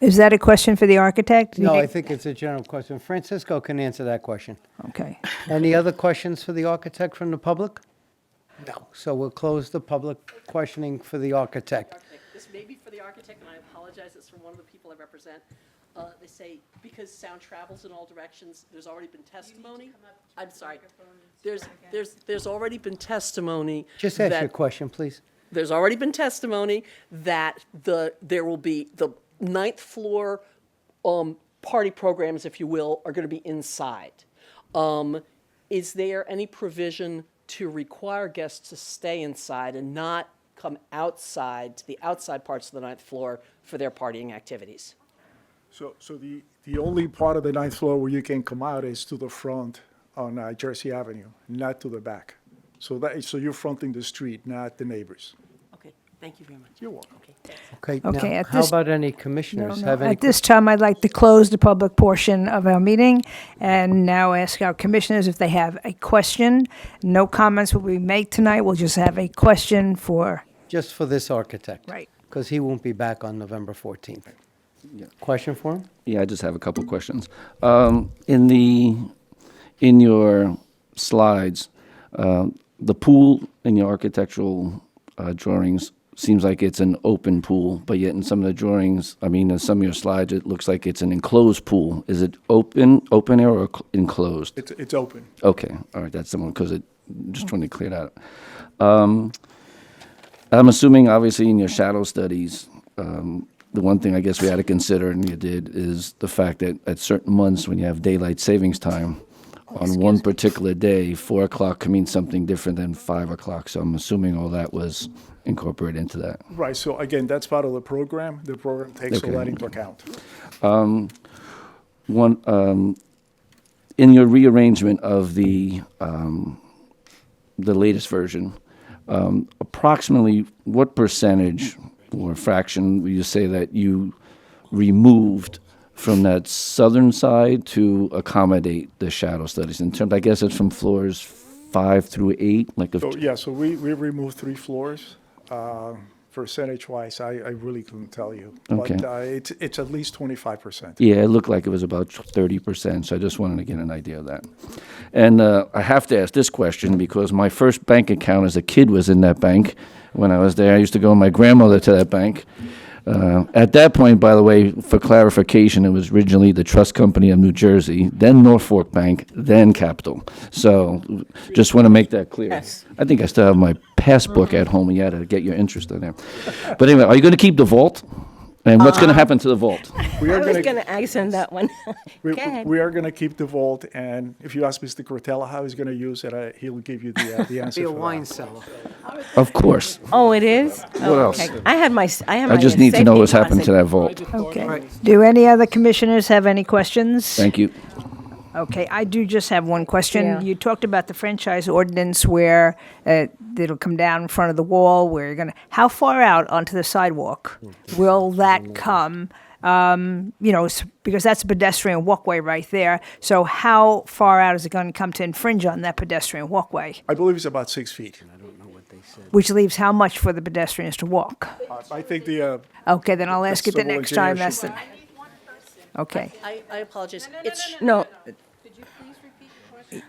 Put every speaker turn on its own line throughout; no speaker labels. Is that a question for the architect? Do you
No, I think it's a general question. Francisco can answer that question.
Okay.
Any other questions for the architect from the public? No. So we'll close the public questioning for the architect.
architect. This may be for the architect, and I apologize, it's from one of the people I represent. Uh, They say, because sound travels in all directions, there's already been testimony. I'm sorry. There's, there's, there's already been testimony.
Just ask
that-
your question, please.
There's already been testimony that the, there will be, the ninth floor um, party programs, if you will, are going to be inside. Um, Is there any provision to require guests to stay inside and not come outside, to the outside parts of the ninth floor for their partying activities?
So, so the, the only part of the ninth floor where you can come out is to the front on uh, Jersey Avenue, not to the back. So that, so you're fronting the street, not the neighbors.
Okay, thank you very much.
You're welcome.
Okay, thanks.
Okay,
Okay,
now,
at
how
this-
about any
No,
commissioners
no.
have any?
At this time, I'd like to close the public portion of our meeting and now ask our commissioners if they have a question. No comments will be made tonight. We'll just have a question for,
Just for this architect.
Right.
Because he won't be back on November 14th. Question for him?
Yeah, I just have a couple of questions. Um, in the in your slides, uh, the pool in your architectural uh, drawings seems like it's an open pool, but yet in some of the drawings, I mean, in some of your slides, it looks like it's an enclosed pool. Is it open, open air, or cl- enclosed?
It's, it's open.
Okay, all right, that's the one, because it, just trying to clear that up. Um, I'm assuming, obviously, in your shadow studies, um, the one thing I guess we had to consider, and you did, is the fact that at certain months, when you have daylight savings time, on one particular day, four o'clock can mean something different than five o'clock, so I'm assuming all that was incorporated into that.
Right, so again, that's part of the program. The program takes all
Okay.
that into account.
One, um, in your rearrangement of the, um, the latest version, um, approximately what percentage or fraction would you say that you removed from that southern side to accommodate the shadow studies? In terms, I guess it's from floors five through eight, like of,
So, yeah, so we, we removed three floors. Uh, Percentage-wise, I, I really couldn't tell you. But
Okay.
uh, it's, it's at least twenty-five percent.
Yeah, it looked like it was about thirty percent, so I just wanted to get an idea of that. And uh, I have to ask this question because my first bank account as a kid was in that bank. When I was there, I used to go with my grandmother to that bank. Uh, at that point, by the way, for clarification, it was originally the Trust Company of New Jersey, then Norfolk Bank, then Capital. So, just want to make that clear.
Yes.
I think I still have my passbook at home. You had to get your interest in there. But anyway, are you going to keep the vault? And what's going to happen to the vault?
We are
I was
gonna,
going to ask him that one.
we,
Go ahead.
we are gonna keep the vault, and if you ask Mr. Cortella how he's gonna use it, uh, he'll give you the, uh, the answer
Be a
for that.
wine cellar.
Of course.
Oh, it is? What
else?
I had my, s- I had my.
I just need to know
safety
what's happened to
deposit.
that vault.
okay. Do any other commissioners have any questions?
Thank you.
Okay, I do just have one
Yeah.
question. You talked about the franchise ordinance where uh, it'll come down in front of the wall, where you're going to, how far out onto the sidewalk will
Mm.
that come? Um, You know, s- because that's a pedestrian walkway right there. So how far out is it going to come to infringe on that pedestrian walkway?
I believe it's about six feet.
Which leaves how much for the pedestrians to walk?
Uh, I think the, uh,
Okay, then I'll ask
That's
it the
civil
next time.
engineer
That's the, okay.
I, I apologize. It's
No,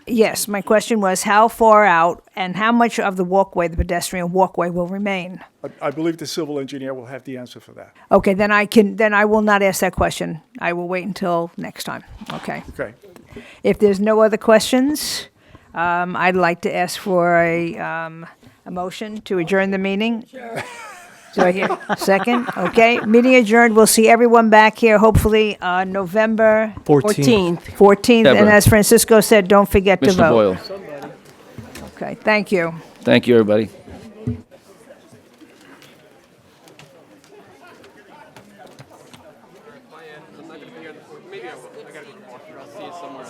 Yes, my question was how far out and how much of the walkway, the pedestrian walkway, will remain?
I- I believe the civil engineer will have the answer for that.
Okay, then I can, then I will not ask that question. I will wait until next time. Okay.
Okay.
If there's no other questions, um, I'd like to ask for a, um, a motion to adjourn the meeting. Do I hear, second? Okay, meeting adjourned. We'll see everyone back here hopefully, uh, November
14th.
14th. And
Deborah.
as Francisco said, don't forget to
Mr.
vote.
Boyle,
Okay, thank you.
thank you, everybody.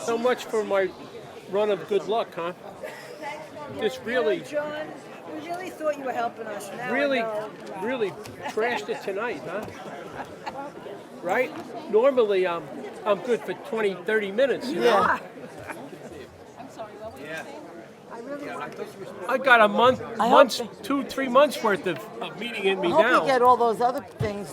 So much for my run of good luck, huh? Just really,
John, we really thought you were helping us.
really, really trashed it tonight, huh? Right? Normally, I'm, I'm good for 20, 30 minutes, you know? I got a month, months, two, three months worth of, of meeting in me
I hope you
now.
get all those other things